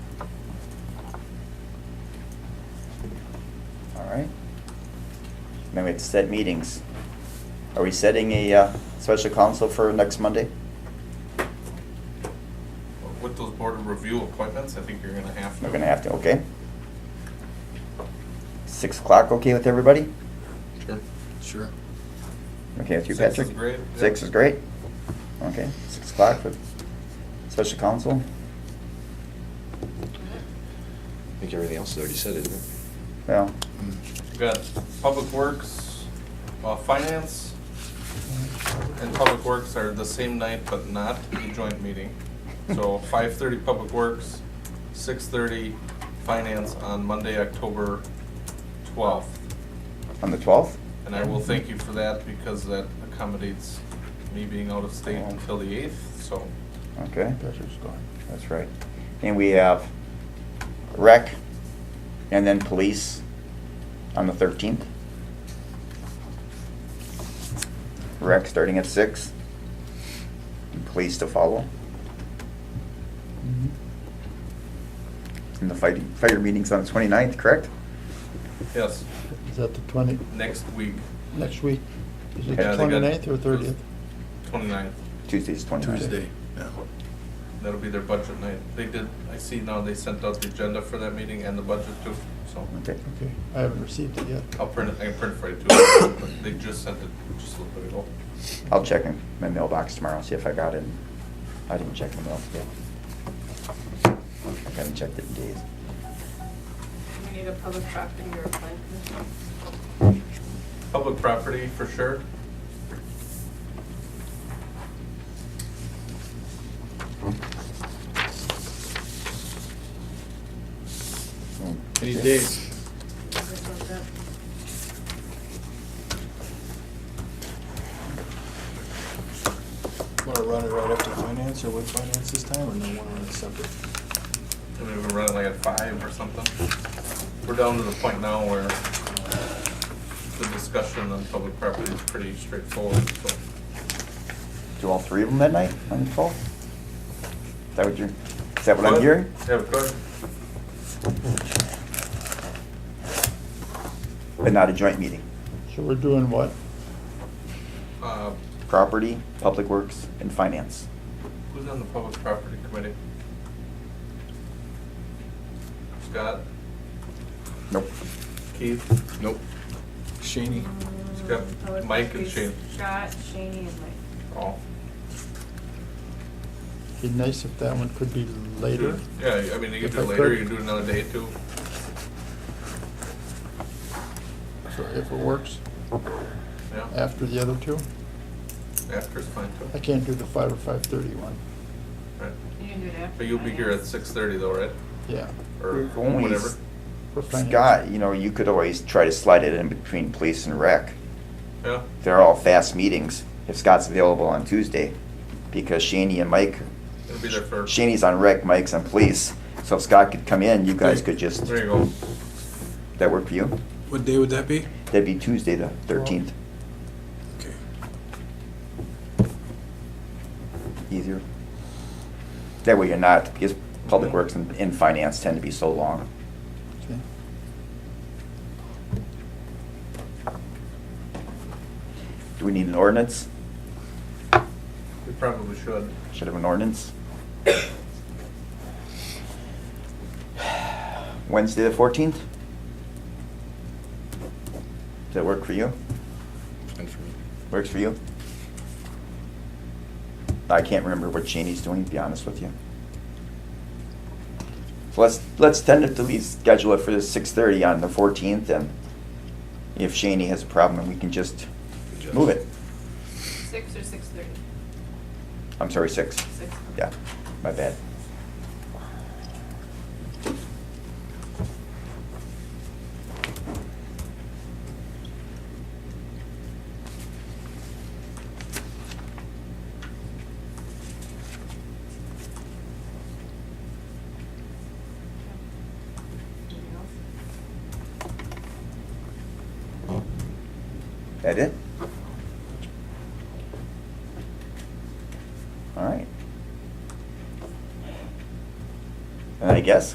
mean, we have to set meetings. Are we setting a uh, special council for next Monday? With those board of review appointments, I think you're gonna have to. We're gonna have to, okay? Six o'clock, okay with everybody? Sure. Sure. Okay with you, Six is Patrick? great, yeah. Six is great? Okay, six o'clock for special council? I think everything else is already said, isn't it? Well, We've got Public Works, uh, Finance, and Public Works are the same night, but not a joint meeting. So five thirty Public Works, six thirty Finance on Monday, October twelfth. on the twelfth? And I will thank you for that because that accommodates me being out of state until the eighth, so. Okay, that's right. And we have rec and then police on the thirteenth. Rec starting at six. and Police to follow. And the fighting, fire meeting's on the 29th, correct? Yes, Is that the 20, next week, next week? Is it the Yeah, they got- 29th or 30th? 29th. Tuesday's 29th. Tuesday, yeah. That'll be their budget night. They did, I see now they sent out the agenda for that meeting and the budget too, so Okay, Okay, I haven't received it yet. I'll print it, I can print it for you too. but They just sent it just a little bit ago. I'll check in my mailbox tomorrow, see if I got it. I didn't check the mail today. I haven't checked it in days. We need a public property or a plan commission. Public property for sure. Any days. That's all that. Want to run it right after finance or with finance this time, or no, want to run it separate? I mean, we're running like at five or something. We're down to the point now where the discussion on public property is pretty straightforward, so. Do all three of them at night on the twelfth? Is that what you're, is that what I'm hearing? Yeah, we could. But not a joint meeting? So we're doing what? Uh, Property, Public Works, and Finance. Who's on the public property committee? Scott, Nope. Keith, Nope. Shaney, It's got Mm, I would Mike and like Shane. Scott, Shaney, and Mike. all. It'd be nice if that one could be later. Yeah, I mean, you can If do it I later, could. you can do it another day too. So if it works, Yeah, after the other two. after's fine I too. can't do the 5 or 5:30 one. Right. You can do it after. But you'll be here at finance. six thirty though, right? Yeah. Or If only whatever. for finance. Scott, you know, you could always try to slide it in between police and rec. Yeah, They're all fast meetings, if Scott's available on Tuesday, because Shaney and Mike, it'll be there for, Shaney's on rec, Mike's on police. So if Scott could come in, you guys could just, there you go. that work for you? what day would that be? That'd be Tuesday, the thirteenth, Okay. easier. That way you're not, because Public Works and, and Finance tend to be so long. Okay. Do we need an ordinance? We probably should. Should have an ordinance. Wednesday, the fourteenth? Does that work for you? Fine for me. Works for you? I can't remember what Janie's doing, to be honest with you. So let's, let's tentatively schedule it for the six thirty on the fourteenth, and if Shani has a problem, we can just move it. Six or six thirty? I'm sorry, six. Six. Yeah, my bad. Anything else? That it? All right. And I guess